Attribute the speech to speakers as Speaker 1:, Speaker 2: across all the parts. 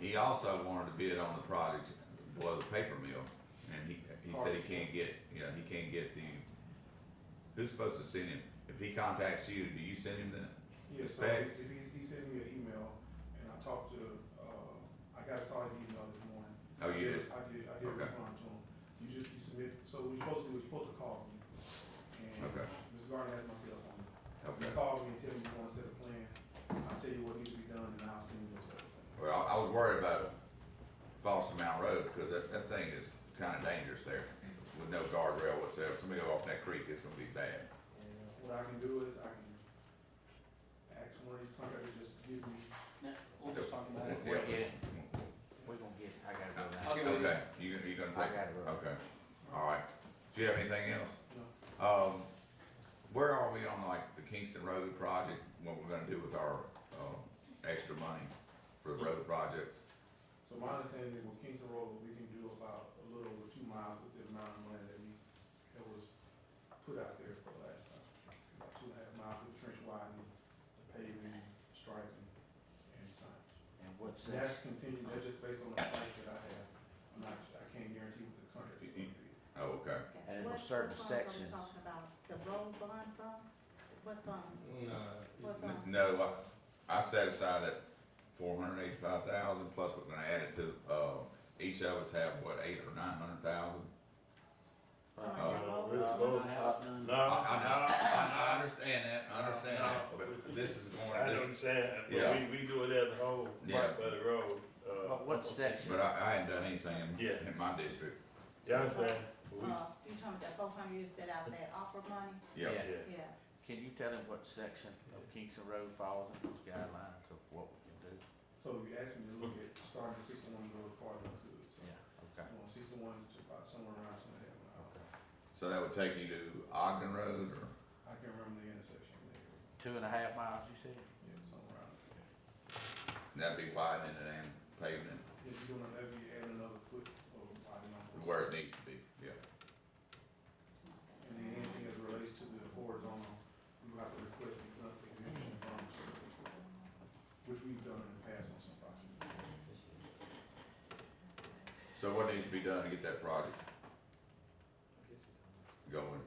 Speaker 1: he also wanted to bid on the project below the paper mill, and he, he said he can't get, you know, he can't get the, who's supposed to send him? If he contacts you, do you send him the,
Speaker 2: Yes, so
Speaker 1: Respect.
Speaker 2: he, he, he sent me an email, and I talked to, uh, I got, saw his email this morning.
Speaker 1: Oh, you did?
Speaker 2: I did, I did
Speaker 1: Okay.
Speaker 2: respond to him. You just, you submit, so we supposed to, we supposed to call me. And
Speaker 1: Okay.
Speaker 2: Ms. Gardner has my cell phone. You
Speaker 1: okay?
Speaker 2: call me and tell me you want to set a plan, I'll tell you what needs to be done, and I'll send you a set of plan.
Speaker 1: Well, I- I was worried about Foster Mount Road, because that, that thing is kinda dangerous there, with no guardrail whatsoever, somebody go off that creek, it's gonna be bad.
Speaker 2: And what I can do is I can ask one of these contractors just to give me,
Speaker 3: No, we'll just talk about it.
Speaker 4: We'll get it, we're gonna get it, I gotta go now.
Speaker 3: I'll get with you.
Speaker 1: Okay, you, you gonna
Speaker 4: I
Speaker 1: take,
Speaker 4: gotta run.
Speaker 1: okay, alright, do you have anything else?
Speaker 2: you know,
Speaker 1: Um, where are we on like the Kingston Road project, what we're gonna do with our, um, extra money for the road projects?
Speaker 2: So my understanding is with Kingston Road, we can do about a little over two miles with the amount of money that we, that was put out there for the last time. About two and a half miles with trench widening, the paving, striping, and signs.
Speaker 4: And Uh, what's
Speaker 2: And that's
Speaker 4: this,
Speaker 2: continued, that's just based on the price that I have. I'm not, I can't guarantee what the contract is gonna be.
Speaker 1: Oh, okay,
Speaker 4: And it was
Speaker 5: What-
Speaker 4: certain
Speaker 5: what funds are we
Speaker 4: sections.
Speaker 5: Talking about the road bond fund, what funds, what funds?
Speaker 1: no, I, I set aside that four hundred eighty-five thousand, plus we're gonna add it to, uh, each of us have what, eight or nine hundred thousand?
Speaker 5: Some of
Speaker 1: Uh,
Speaker 5: that road-
Speaker 4: uh,
Speaker 5: what-
Speaker 4: uh, uh,
Speaker 6: No,
Speaker 1: I, I, I, I understand that, I understand that, but this is
Speaker 6: I
Speaker 1: going, this,
Speaker 6: understand, but
Speaker 1: Yeah.
Speaker 6: we, we do it as a whole,
Speaker 1: Yeah.
Speaker 6: right by the road. uh,
Speaker 4: But what section?
Speaker 1: but I, I hadn't done anything
Speaker 6: Yeah.
Speaker 1: in, in my district,
Speaker 6: Yeah, I understand, but we,
Speaker 5: Uh, you talking about four hundred you set out that offer money,
Speaker 1: yeah.
Speaker 6: yeah.
Speaker 5: yeah,
Speaker 4: Can you tell him what section of Kingston Road falls in those guidelines of what we can do?
Speaker 2: So you asked me to look at starting at sixty-one road farther than I could, so.
Speaker 4: Yeah, okay,
Speaker 2: I'm on sixty-one to about somewhere around two and a half miles.
Speaker 4: okay.
Speaker 1: So that would take you to Ogden Road or?
Speaker 2: I can't remember the intersection there,
Speaker 4: Two and a half miles, you said?
Speaker 2: yeah, somewhere around. there.
Speaker 1: And that'd be widening it and paving it
Speaker 2: If you're gonna ever add another foot or five miles.
Speaker 1: where it needs to be, yeah.
Speaker 2: And then anything that relates to the horizontal, you have to request exempt exemption from, which we've done in the past on some projects.
Speaker 1: So what needs to be done to get that project going?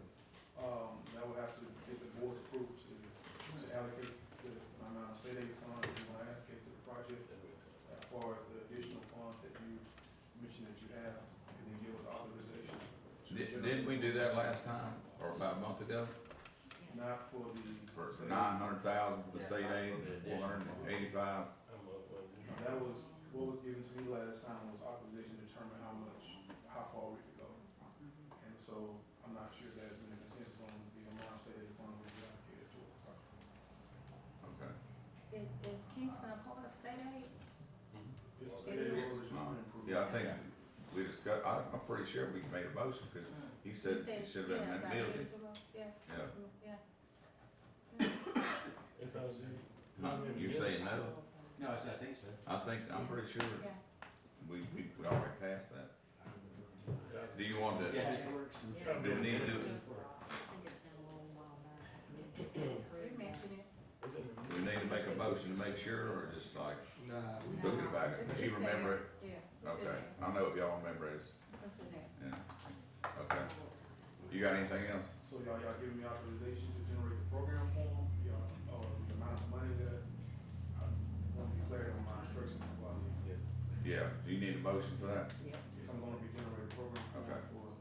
Speaker 2: Um, that would have to get the board's approval to, to allocate the amount of state aid funds you want to allocate to the project as far as the additional funds that you mentioned that you have, and then give us authorization. to
Speaker 1: Di-
Speaker 2: generate-
Speaker 1: Didn't we do that last time, or about a month ago?
Speaker 2: Not for the.
Speaker 1: For nine hundred thousand for the state aid, four hundred and eighty-five?
Speaker 6: I'm up on you.
Speaker 2: Now, That was, what was given to me last time was authorization to determine how much, how far we could go. And so I'm not sure there's been a consensus on the amount that is going to be allocated towards the project.
Speaker 1: Okay.
Speaker 5: is, is Kingston a part of state aid?
Speaker 2: This is state aid road is
Speaker 1: Uh,
Speaker 2: an improvement.
Speaker 1: Yeah, I think we discussed, I, I'm pretty sure we made a motion, cause he said
Speaker 5: You
Speaker 1: it should have been in
Speaker 5: Mm. yeah,
Speaker 1: that
Speaker 5: about
Speaker 1: building,
Speaker 5: Kingston Road, Yeah,
Speaker 1: yeah.
Speaker 5: mm, yeah.
Speaker 6: It's all good.
Speaker 1: Huh, You're saying no?
Speaker 3: No, I said, I think so.
Speaker 1: I think, I'm pretty sure
Speaker 5: Yeah.
Speaker 1: we, we, we already passed that.
Speaker 6: Yeah.
Speaker 1: Do you want to,
Speaker 3: Dash works and.
Speaker 6: Yeah.
Speaker 1: do we need to do,
Speaker 5: You mentioned it.
Speaker 6: It's in the-
Speaker 1: we need to make a motion to make sure, or just like? Uh,
Speaker 5: No,
Speaker 1: Looking back,
Speaker 5: it's-
Speaker 1: if you
Speaker 5: it's there.
Speaker 1: remember it,
Speaker 5: Yeah. it's in
Speaker 1: okay,
Speaker 5: there.
Speaker 1: I know if y'all remember it,
Speaker 5: It's in there.
Speaker 1: yeah, okay. You got anything else?
Speaker 2: So y'all, y'all giving me authorization to generate the program form, y'all, uh, the amount of money that I want to declare on my instructions before I leave.
Speaker 1: Yeah, do you need a motion for that?
Speaker 2: If I'm gonna be generating program form
Speaker 1: Okay.
Speaker 2: for.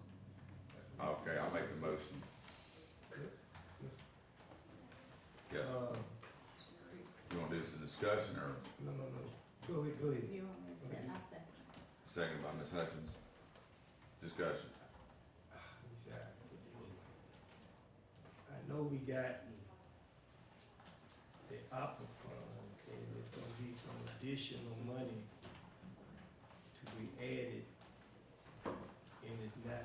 Speaker 1: Okay, I'll make the motion. Yeah,
Speaker 7: Uh,
Speaker 1: you wanna do this in discussion, or
Speaker 7: no, no, no, go ahead, go ahead.
Speaker 5: You want me to set, I said,
Speaker 1: second by Ms. Hutchins? Discussion,
Speaker 7: I know we got the opera fund, and there's gonna be some additional money to be added. And it's not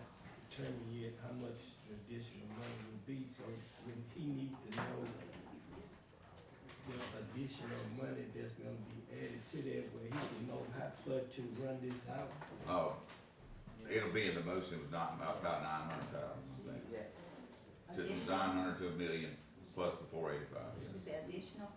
Speaker 7: determined yet how much the additional money will be, so when he need to know the additional money that's gonna be added to that, where he can know how far to run this out.
Speaker 1: oh, it'll be in the motion, it was not, about nine hundred thousand, I
Speaker 4: Yeah,
Speaker 1: think, to
Speaker 5: additional,
Speaker 1: nine hundred to a million, plus the four eighty-five,
Speaker 5: you said additional,